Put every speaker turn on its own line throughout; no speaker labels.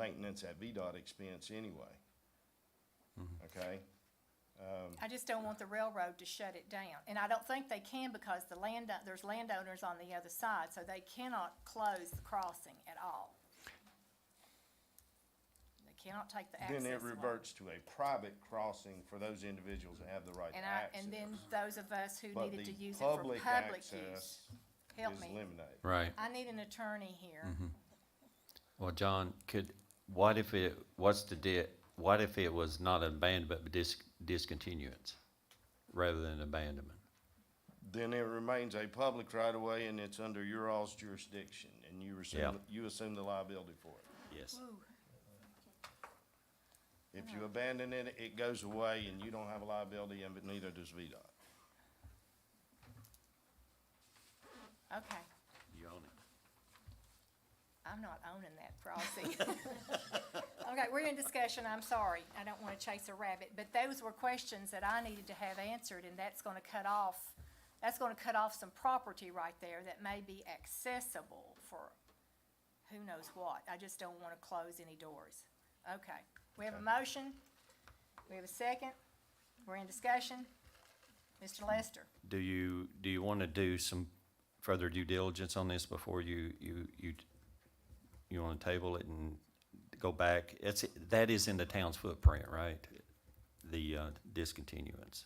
maintenance at VDOT expense anyway. Okay?
I just don't want the railroad to shut it down. And I don't think they can because the land, there's landowners on the other side, so they cannot close the crossing at all. They cannot take the access
Then
away.
it reverts to a private crossing for those individuals that have the right to
And I,
access.
and then those of us who
But
needed to
the
use it for public use.
access
Help
is
me.
eliminated.
Right.
I need an attorney here.
Well, John, could, what if it, what's the di, what if it was not abandonment, but dis, discontinuance rather than abandonment?
Then it remains a public right of way and it's under your all's jurisdiction and you
Yeah.
assume, you assume the liability for it.
Yes.
Ooh,
If you abandon it, it goes away and you don't have a liability and but neither does VDOT.
okay,
You own it.
I'm not owning that crossing. Okay, we're in discussion, I'm sorry, I don't wanna chase a rabbit, but those were questions that I needed to have answered, and that's gonna cut off, that's gonna cut off some property right there that may be accessible for who knows what, I just don't wanna close any doors. Okay, we have a motion, we have a second, we're in discussion. Mr. Lester?
Do you, do you want to do some further due diligence on this before you, you, you, you want to table it and go back? It's, that is in the town's footprint, right? The, uh, discontinuance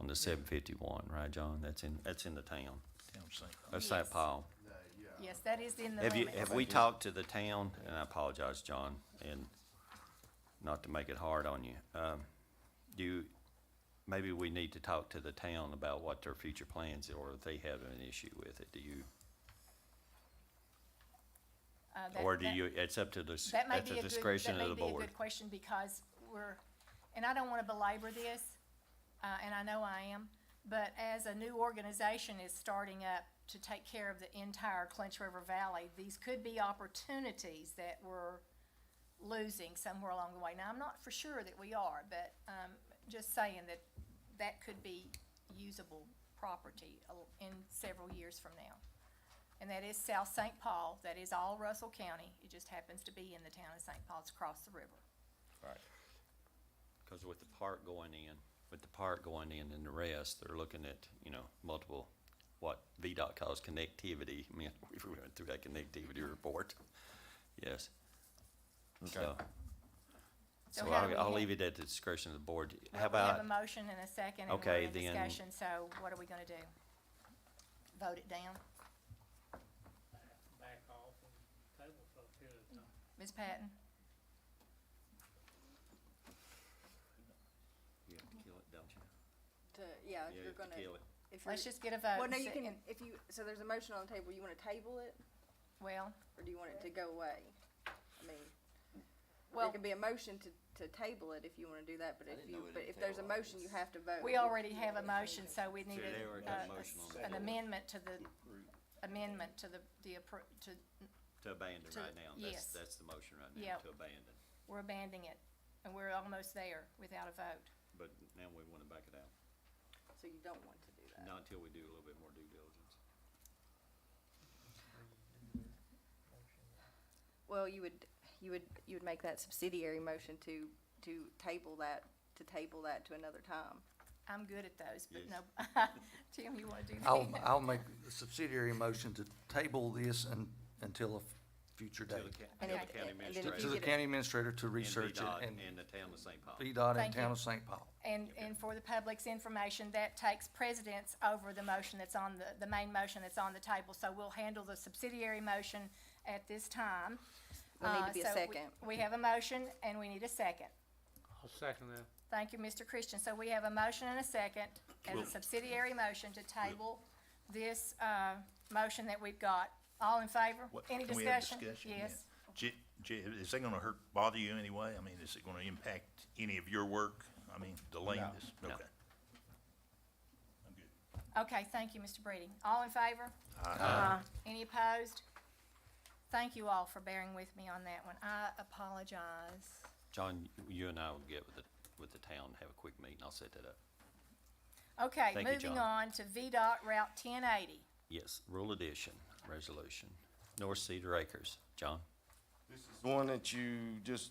on the seven fifty-one, right, John? That's in, that's in the town. That's St.
Yes.
Paul.
Yes, that is in the
Have you,
limits.
have we talked to the town, and I apologize, John, and not to make it hard on you. Um, do you, maybe we need to talk to the town about what their future plans, or if they have an issue with it, do you?
Uh, that-
Or do
that-
you, it's up to the, s-
That may
at
be
the
a good,
discretion of
that
the
may be a
board.
good question because we're, and I don't wanna belabor this, uh, and I know I am, but as a new organization is starting up to take care of the entire Clinch River Valley, these could be opportunities that we're losing somewhere along the way. Now, I'm not for sure that we are, but, um, just saying that that could be usable property al- in several years from now. And that is South St. Paul, that is all Russell County, it just happens to be in the town of St. Paul, it's across the river.
Because with the park going in, with the park going in and the rest, they're looking at, you know, multiple, what VDOT calls connectivity. I mean, we went through that connectivity report. Yes. So-
So
So
how do we
I'll, I'll
ha-
leave it at the discretion of the board.
We
How
have a
about,
motion and a second, and we're
Okay,
in
then-
discussion, so what are we gonna do? Vote it down?
back off and table for a period of time.
Ms. Patton?
you have to kill it, don't you?
to,
Uh,
yeah,
Yeah,
if
you
you're
have
gonna,
to kill it.
if you're,
Let's just uh, get a vote.
well, no,
and
you
see-
can,
and-
if you, so there's a motion on the table, you wanna table it,
Well,
or do you want it to go away? I mean, there
well,
can be a motion to, to table it if you wanna do that, but if you, but if there's a motion, you have to vote.
we already have a motion, so we need
they
a-
already got a
a- a
motion on
s-
the
an
floor.
amendment to the, amendment to the, the, appro- to,
To abandon
To-
right now. That's,
yes.
that's the motion right now,
Yep.
to abandon.
we're abandoning it, and we're almost there without a vote.
But now we want to back it out,
So you don't want to do
Uh,
that.
not until we do a little bit more due diligence.
Well, you would, you would, you would make that subsidiary motion to, to table that, to table that to another time.
I'm good at those, but
Yes.
no, Tim, you wanna do
Oh,
that?
I'll, I'll make a subsidiary motion to table this un until a future
To the
date.
ca-
And
to
if-
the county
and then if you
administrator.
To the
get it.
county administrator to research it
VDOT
and
And the town of St. Paul.
VDOT and
Thank you.
Town of St. Paul.
And, and for the public's information, that takes precedence over the motion that's on the, the main motion that's on the table. So we'll handle the subsidiary motion at this time.
There'll need to
Uh,
be a
so we-
second.
We have a motion and we need a second.
I'll second that.
Thank you, Mr. Christian. So we have a motion and a second as a subsidiary motion to table this, uh, motion that we've got. All in favor?
What-
Any
can we have
discussion?
Yeah.
Yes.
J- J- Is that gonna hurt, bother you anyway? I mean, is it gonna impact any of your work? I mean, delaying
No.
this?
No.
Okay. I'm good.
Okay, thank you, Mr. Breeding. All in favor? Any opposed? Thank you all for bearing with me on that one. I apologize.
John, you and I will get with the, with the town, have a quick meeting, I'll set that up.
Okay,
Thank you,
moving
John.
on to VDOT Route ten eighty.
Yes, rule addition, resolution, North Cedar Acres, John?
This is the one that you just